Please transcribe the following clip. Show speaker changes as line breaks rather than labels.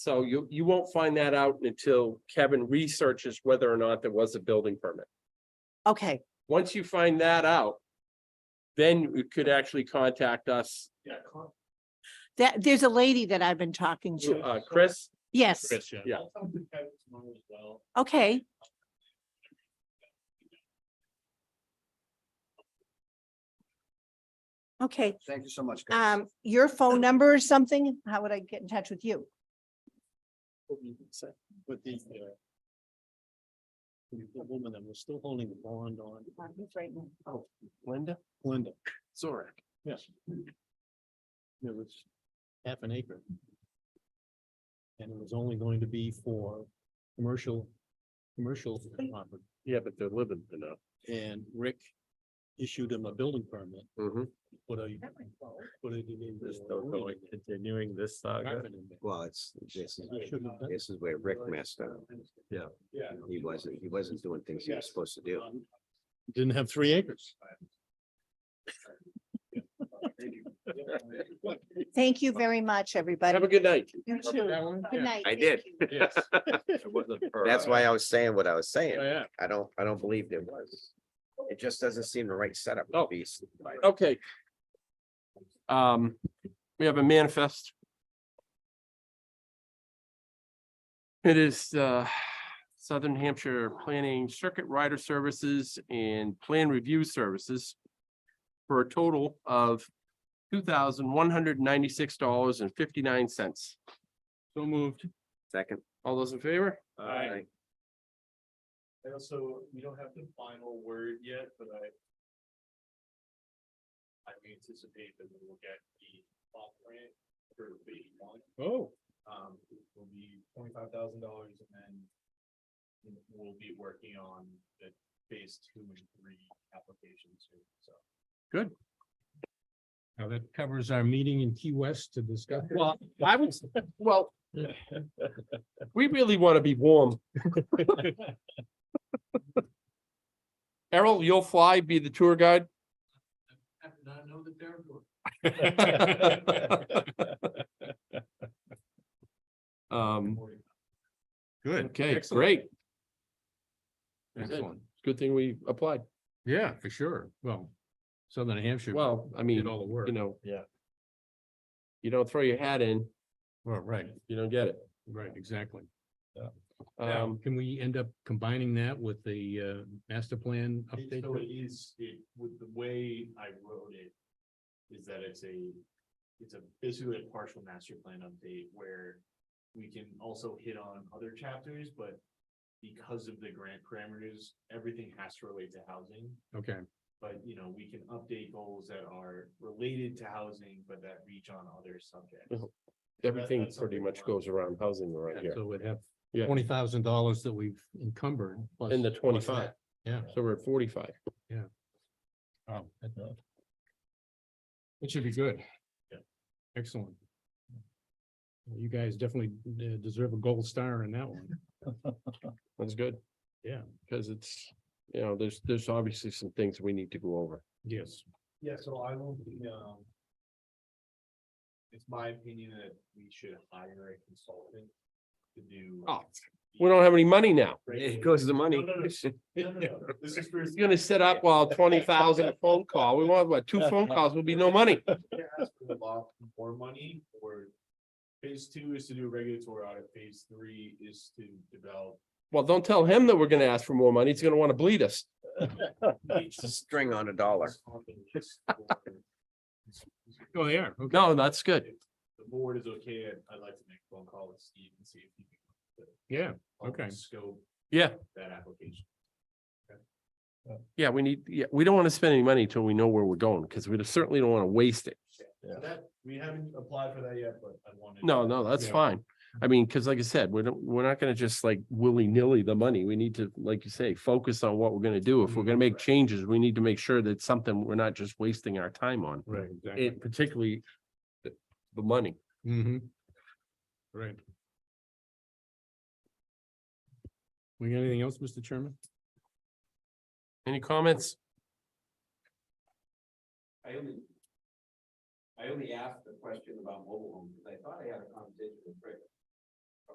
So you, you won't find that out until Kevin researches whether or not there was a building permit.
Okay,
Once you find that out, then you could actually contact us,
Yeah. con-
that, there's a lady that I've been talking to.
uh, Chris.
Yes,
Chris, yeah.
Yeah.
I'll talk to Kevin tomorrow as well.
okay, okay.
Thank you so much. guys.
Um, your phone number or something? How would I get in touch with you?
What you can say With the, uh, the the woman that was still holding the bond on. Oh, Linda? Linda. Zorek. Yes. It was half an acre. And it was only going to be for commercial, commercial property.
Yeah, but they're living enough.
And Rick issued him a building permit,
Mm-hmm.
put a, put it in. the-
continuing this saga.
apartment in there.
Well, it's, this is,
He shouldn't have done-
this is where Rick messed up.
Yeah.
Yeah.
He wasn't, he wasn't doing things he was supposed to do.
Didn't have three acres.
Thank you very much, everybody.
Have a good night.
You too. Good night.
I
thank
did.
you.
Yes.
That's why I was saying what I was saying.
Yeah.
I don't, I don't believe there was. It just doesn't seem the right setup. to
Oh.
be-
Okay. Um, we have a manifest. It is uh Southern Hampshire Planning Circuit Rider Services and Plan Review Services. For a total of two thousand one hundred ninety-six dollars and fifty-nine cents.
So moved.
Second.
All those in favor?
Aye.
I also, we don't have the final word yet, but I. I anticipate that we will get the plot grant for phase one.
Oh,
Um, it will be twenty-five thousand dollars and then. We'll be working on the phase two and three applications soon, so.
now that covers our meeting in Key West to discuss.
Well, I would, well, we really want to be warm. Errol, you'll fly, be the tour guide?
I did not know that they're.
Um,
Good.
okay,
Excellent.
great. That's it.
Excellent.
Good thing we applied.
Yeah, for sure. Well, Southern Hampshire.
Well, I
Did
mean,
all the work.
you know.
Yeah.
You don't throw your hat in,
Well, Oh, right,
you don't get it.
right, exactly. Um,
Um,
can we end up combining that with the uh master plan
It-
update?
So it is, it, with the way I wrote it, is that it's a, it's a basically a partial master plan update where we can also hit on other chapters, but because of the grant parameters, everything has to relate to housing.
Okay,
But, you know, we can update goals that are related to housing, but that reach on other subjects.
everything
that's
pretty
something
much
more.
goes around housing right here.
so we'd have
Yeah.
twenty thousand dollars that we've encumbered. plus-
And the
plus
25.
that. Yeah.
So we're at forty-five.
Oh, that- It should be good.
Yeah.
Excellent. Well, You guys definitely uh, deserve a gold star in that one.
That's good.
Yeah.
Because it's, you know, there's, there's obviously some things we need to go over.
Yes.
Yeah, so I will, be, um. It's my opinion that we should hire a consultant to do. uh,
Oh, We don't have any money now.
It goes the money.
No, no, no. No, no, no. This is for.
It's gonna sit up while twenty thousand a phone call. We want, what, two phone calls will be no money.
They're asking for a lot More money or phase two is to do a regulatory audit, phase three is to develop.
Well, don't tell him that we're gonna ask for more money. He's gonna wanna bleed us.
It's a string on a dollar.
on the list for-
Oh, they are. Okay.
No, that's good.
If The board is okay, I'd- I'd like to make a phone call with Steve and see if he can.
Yeah,
help
Okay.
Scope.
Yeah.
That application.
Yeah, we need, yeah, we don't wanna spend any money until we know where we're going, because we certainly don't wanna waste it.
So That, we haven't applied for that yet, but I wanted.
No, no, that's
Yeah.
fine. I mean, because like I said, we're, not- we're not gonna just like willy-nilly the money. We need to, like you say, focus on what we're gonna do. If we're gonna make
Mm-hmm.
changes, we need to make sure that something we're not just wasting our time on.
right, exactly.
It particularly the the money.
Mm-hmm. Right. We got anything else, Mr. Chairman?
Any comments?
I only. I only asked the question about mobile homes, because I thought I had a conversation with Rick